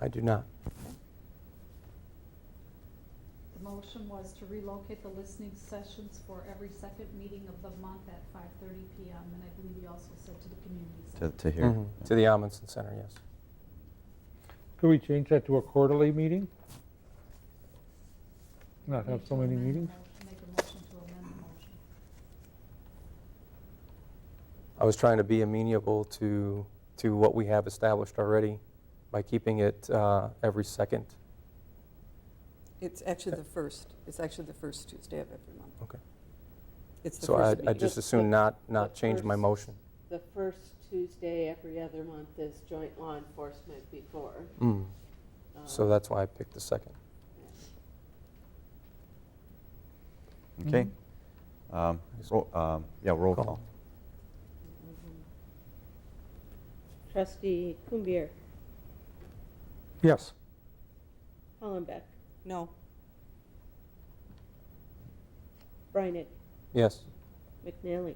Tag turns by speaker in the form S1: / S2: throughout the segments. S1: I do not.
S2: The motion was to relocate the listening sessions for every second meeting of the month at five thirty PM, and I believe you also said to the community
S3: to,
S2: center.
S3: to here.
S1: Mhm.
S4: Mm-hmm.
S3: Yeah.
S1: To the Amundsen Center, yes.
S4: Could we change that to a quarterly meeting? Not have so many
S2: Amend the
S4: meetings?
S2: motion- Make a motion to amend the motion.
S1: I was trying to be amenable to, to what we have established already by keeping it uh, every second.
S5: It's actually the first, it's actually the first Tuesday of every month.
S1: Okay.
S5: It's the
S1: So I
S5: first
S1: I
S5: meeting.
S1: just
S6: The-
S1: assume
S6: the-
S1: not, not
S6: the
S1: change my
S6: first-
S1: motion.
S6: The first Tuesday every other month is joint law enforcement before.
S1: Mm.
S6: um,
S1: So that's why I picked the second.
S3: Okay.
S1: Mm-hmm.
S3: Um, ro- um, yeah, roll
S1: Call.
S3: call.
S6: Trustee Kumbier,
S4: Yes.
S6: Hollenbeck,
S5: No,
S6: Brynick,
S1: Yes.
S6: McNally.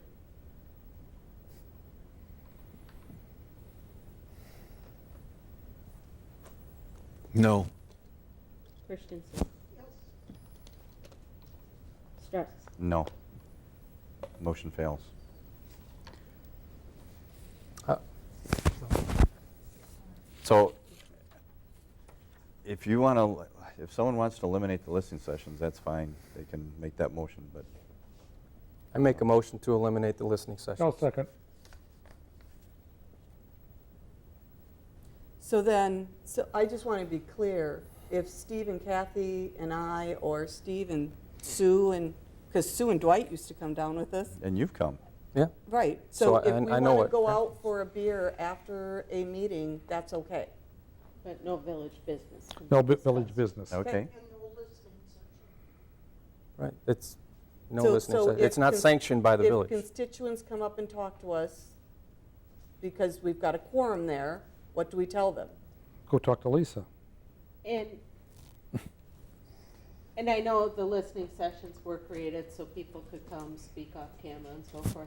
S7: No.
S6: Christensen. Strauss.
S3: No. Motion fails.
S1: Uh,
S3: So if you want to, if someone wants to eliminate the listening sessions, that's fine. They can make that motion, but
S1: I make a motion to eliminate the listening session.
S4: I'll second.
S5: so then, so I just want to be clear, if Steve and Kathy and I, or Steve and Sue and, because Sue and Dwight used to come down with us,
S3: and you've come.
S1: Yeah,
S5: right,
S1: So
S5: so if
S1: I-
S5: we
S1: I know
S5: want to
S1: it.
S5: go out for a beer after a meeting, that's okay.
S6: But no village business. can
S4: No
S6: be
S4: bu- village
S6: discussed.
S4: business.
S3: Okay.
S1: right. It's no
S5: So-
S1: listening
S5: so
S1: session.
S5: if
S1: It's not
S5: cons-
S1: sanctioned by the
S5: If
S1: village.
S5: constituents come up and talk to us, because we've got a quorum there, what do we tell them?
S4: Go talk to Lisa.
S6: And, and I know the listening sessions were created so people could come speak off camera and so forth.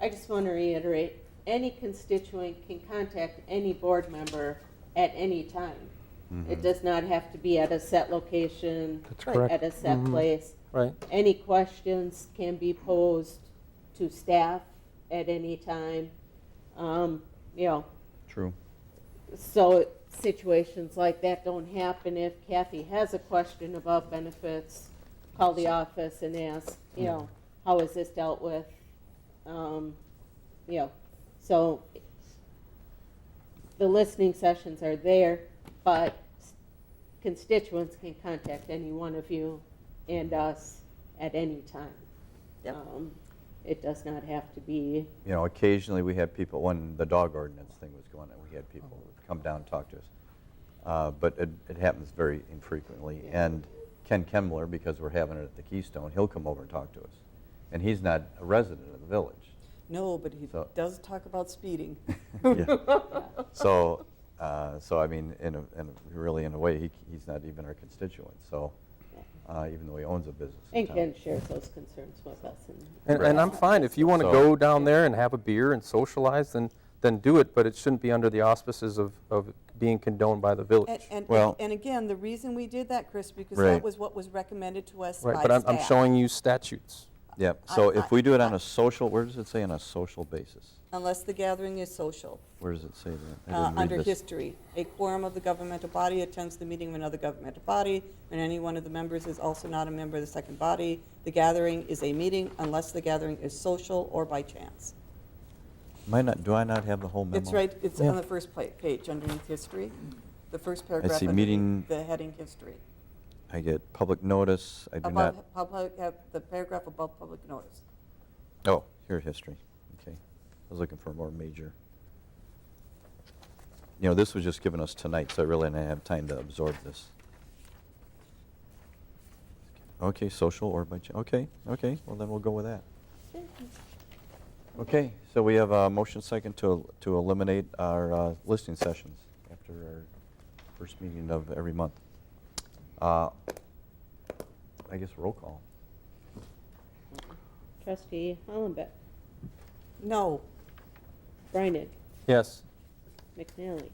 S6: I just want to reiterate, any constituent can contact any board member at any time.
S3: Mm-hmm.
S6: It does not have to be at a set location,
S4: That's
S5: Right.
S4: correct.
S6: at a set
S1: Mhm.
S6: place.
S1: Right,
S6: Any questions can be posed to staff at any time. Um, You know,
S3: True.
S6: so situations like that don't happen if Kathy has a question about benefits, call the office and ask, you know, how is this dealt with? Um, You know, so the listening sessions are there, but constituents can contact any one of you and us at any time.
S5: Yep.
S6: Um, It does not have to be,
S3: You know, occasionally we had people, when the dog ordinance thing was going on, we had people come down and talk to us. Uh, But it, it happens very infrequently. And Ken Kemmler, because we're having it at the Keystone, he'll come over and talk to us. And he's not a resident of the village.
S5: No, but he
S3: So-
S5: does talk about speeding.
S3: Yeah. So, uh, so I mean, in a, in a- really, in a way, he, he's not even our constituent, so, uh, even though he owns a business in
S6: and
S3: town.
S6: Ken shares those concerns with us and
S1: and, and I'm fine, if you want to
S3: So-
S1: go down there and have a beer and socialize, then, then do it, but it shouldn't be under the auspices of, of being condoned by the
S5: And,
S1: village.
S5: and,
S3: Well-
S5: and again, the reason we did that, Chris, because
S3: Right.
S5: that was what was recommended to us by
S1: Right,
S5: staff.
S1: but I'm, I'm showing you statutes.
S3: Yep, so
S5: I-
S3: if we do it on a social, where does it say on a social basis?
S5: Unless the gathering is social,
S3: Where does it say that? I
S5: uh,
S3: didn't read
S5: under
S3: this.
S5: history. A quorum of the governmental body attends the meeting of another governmental body, when any one of the members is also not a member of the second body. The gathering is a meeting unless the gathering is social or by chance.
S3: Am I not, do I not have the whole memo?
S5: It's right, it's on the first pla- page underneath history, the first paragraph. underneath
S3: meeting-
S5: The heading history.
S3: I get public notice, I do not,
S5: Above, public, uh, the paragraph above public notice.
S3: oh, here, history, okay. I was looking for a more major. You know, this was just given us tonight, so I really didn't have time to absorb this. Okay, social or by, ch- okay, okay, well then we'll go with that. Okay, so we have a motion second to, to eliminate our uh, listening sessions after our first meeting of every month. Uh, I guess roll call.
S6: Trustee Hollenbeck,
S5: No,
S6: Brynick,
S1: Yes,
S6: McNally,